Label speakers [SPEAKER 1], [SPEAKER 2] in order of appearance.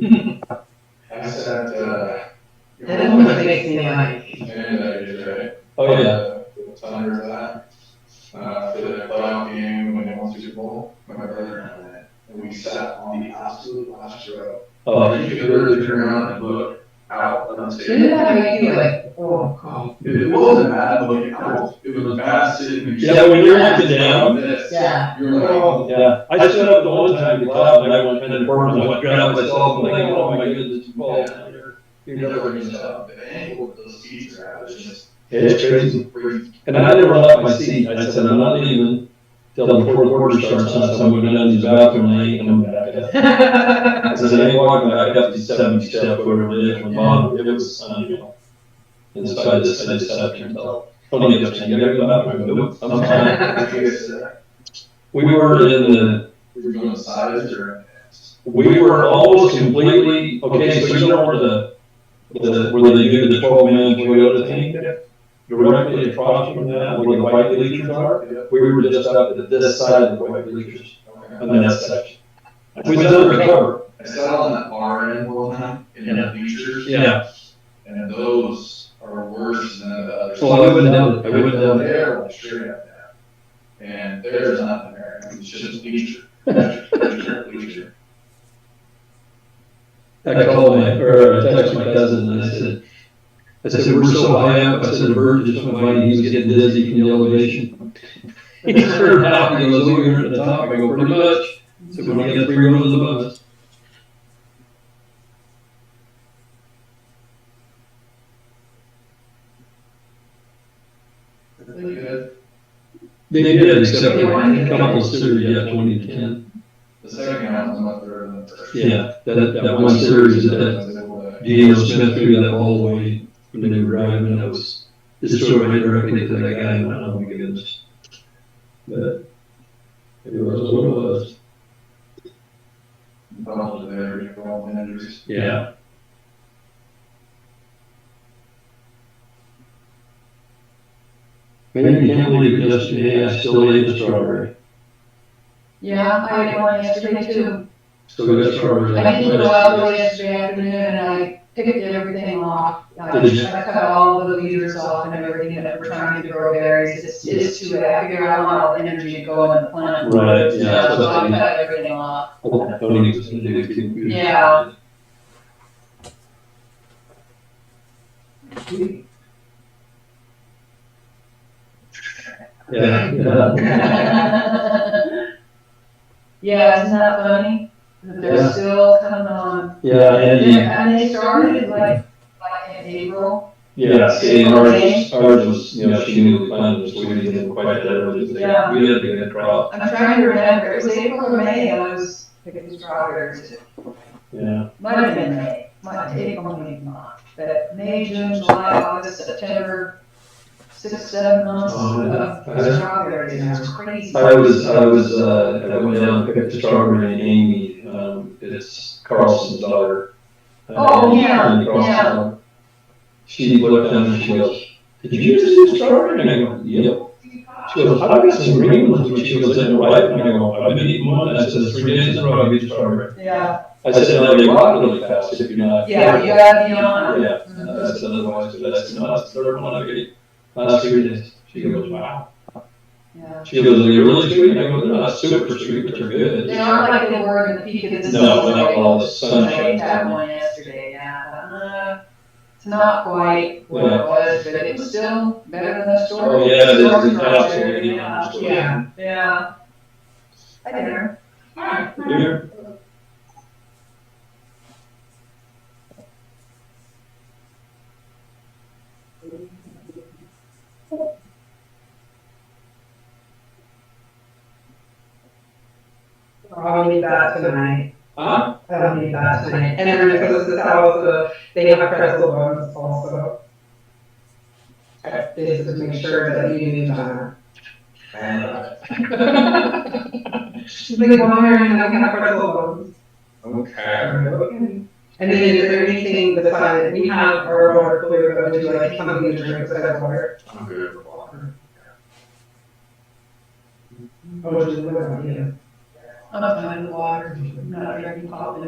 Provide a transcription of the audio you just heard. [SPEAKER 1] I sent, uh.
[SPEAKER 2] That always makes me like,
[SPEAKER 1] Commander Knight, right?
[SPEAKER 3] Oh, yeah.
[SPEAKER 1] Uh, the Thunder of that, uh, for the playoff game when they won the Super Bowl, my brother and I went, and we sat on the absolute last row.
[SPEAKER 3] Oh,
[SPEAKER 1] Like, you could literally turn around and look out on the stadium.
[SPEAKER 2] shouldn't that make you like, oh, God.
[SPEAKER 1] It wasn't bad, but like, I was- it was bad sitting. and-
[SPEAKER 3] Yeah, when you're looking down.
[SPEAKER 1] This.
[SPEAKER 2] Yeah.
[SPEAKER 1] You're like, oh,
[SPEAKER 3] yeah. I stood up all the time to clap, and I went and performed. I went got up myself, and like, oh my goodness, it's ball.
[SPEAKER 1] you never gonna stop. The angle of those seats are out, it's just.
[SPEAKER 3] It's crazy.
[SPEAKER 1] freaking-
[SPEAKER 3] And I never left my seat. I said, I'm not leaving till the fourth quarter starts. So I'm going down to the bathroom, and I ain't coming back up. I said, I ain't walking back up these seventy step, whatever it is, from Bob. It was unreal. Inside this, I just sat there and felt. Tony kept saying, you gotta go out. I go, nope, I'm fine.
[SPEAKER 1] If you get set,
[SPEAKER 3] We were in the
[SPEAKER 1] We're doing sides or
[SPEAKER 3] We were almost completely, okay, so you know where the, the, where they do the twelve man Toyota thing? Directly across from that, where the white bleachers are, we were just up at this side of the white bleachers, on that section. We was undercover.
[SPEAKER 1] I sat on that bar end one time in the bleachers.
[SPEAKER 3] Yeah.
[SPEAKER 1] And those are worse than the others.
[SPEAKER 3] So I went down, I went down there.
[SPEAKER 1] They're like straight up now. And there's nothing there. It's just bleacher. Bleacher, bleacher.
[SPEAKER 3] I called my, or I texted my cousin and I said, I said, we're so high up, I said, a bird just went by, and he was getting dizzy from the elevation. He turned out and goes, oh, you're at the top, I go, pretty much. So we don't get three rows above us.
[SPEAKER 1] Pretty good.
[SPEAKER 3] They did, except
[SPEAKER 2] They
[SPEAKER 3] for
[SPEAKER 2] won.
[SPEAKER 3] a couple of series, yeah, twenty to ten.
[SPEAKER 1] The second round was much better than the first.
[SPEAKER 3] Yeah, that, that one series that Geno Smith threw that ball away when they were driving, that was destroyed directly to that guy, and oh my goodness. But it was what it was.
[SPEAKER 1] Bummed there, you know, and injuries.
[SPEAKER 3] Yeah. Man, you can't believe it yesterday, I still ate the strawberry.
[SPEAKER 2] Yeah, I had one yesterday too.
[SPEAKER 3] Still got strawberries.
[SPEAKER 2] I didn't go out really yesterday afternoon and I ticketed everything off. I
[SPEAKER 3] Did you?
[SPEAKER 2] I cut all of the leaders off and everything that we're trying to grow berries. It's, it's too, I figure I want all the energy to go in the plant.
[SPEAKER 3] Right,
[SPEAKER 2] So
[SPEAKER 3] yeah. that's what I
[SPEAKER 2] I
[SPEAKER 3] mean.
[SPEAKER 2] cut everything off.
[SPEAKER 3] Tony was gonna do it too.
[SPEAKER 2] Yeah.
[SPEAKER 3] Yeah, yeah.
[SPEAKER 2] Yeah, isn't that funny? That
[SPEAKER 3] Yeah.
[SPEAKER 2] They're still coming on.
[SPEAKER 3] Yeah, and,
[SPEAKER 2] And they started like, like in April.
[SPEAKER 3] yeah, see, and ours, ours was, you know, she knew the plan was, we didn't quite that early, but
[SPEAKER 2] Yeah.
[SPEAKER 3] we had a good crop.
[SPEAKER 2] I'm trying to remember, it was April or May, I was picking strawberries.
[SPEAKER 3] Yeah.
[SPEAKER 2] Might have been May, might take on maybe not, but May, June, July, August, September, six, seven months
[SPEAKER 3] Oh,
[SPEAKER 2] of
[SPEAKER 3] yeah. I-
[SPEAKER 2] strawberries, it was crazy.
[SPEAKER 3] I was, I was, uh, I went down and picked up the strawberry and Amy, um, it's Carlson's daughter. uh,
[SPEAKER 2] Oh, yeah,
[SPEAKER 3] and Carlson,
[SPEAKER 2] yeah.
[SPEAKER 3] um, She looked down and she goes, did you just do strawberry? And I go, yep. She goes, I got some green ones, when she goes, in your wife, and I go, I've been eating one, I said, three days in a row, I get strawberry.
[SPEAKER 2] Yeah,
[SPEAKER 3] I said, no, they rot really fast if you're not.
[SPEAKER 2] yeah, you gotta be on.
[SPEAKER 3] Yeah, that's another one, so that's, no, that's the third one I get. Last three days, she goes, wow.
[SPEAKER 2] Yeah.
[SPEAKER 3] She goes, they're really sweet, and I go, they're not super sweet, but they're good.
[SPEAKER 2] They aren't like they were in the peak of the season.
[SPEAKER 3] No, not all the
[SPEAKER 2] I ate that
[SPEAKER 3] sunshine.
[SPEAKER 2] one yesterday, yeah, uh, it's not quite what it
[SPEAKER 3] Yeah.
[SPEAKER 2] was, but it was still better than the store.
[SPEAKER 3] Oh, yeah, it is,
[SPEAKER 2] store
[SPEAKER 3] it's
[SPEAKER 2] strawberry,
[SPEAKER 3] absolutely
[SPEAKER 2] yeah,
[SPEAKER 3] awesome.
[SPEAKER 2] Yeah, yeah. I did her.
[SPEAKER 3] Here,
[SPEAKER 4] I'll need that tonight.
[SPEAKER 3] huh?
[SPEAKER 4] I'll need that tonight. And then because this is also, they have pretzel buns also. Uh, This is to make sure that you need that.
[SPEAKER 1] And, uh,
[SPEAKER 4] She's like, why and I can have pretzel buns?
[SPEAKER 1] Okay.
[SPEAKER 4] And then is there anything besides, we have our water cooler, but would you like something to drink besides water?
[SPEAKER 1] I'm good with water.
[SPEAKER 4] Or would you like, yeah?
[SPEAKER 2] I'm not fine with water, not drinking coffee.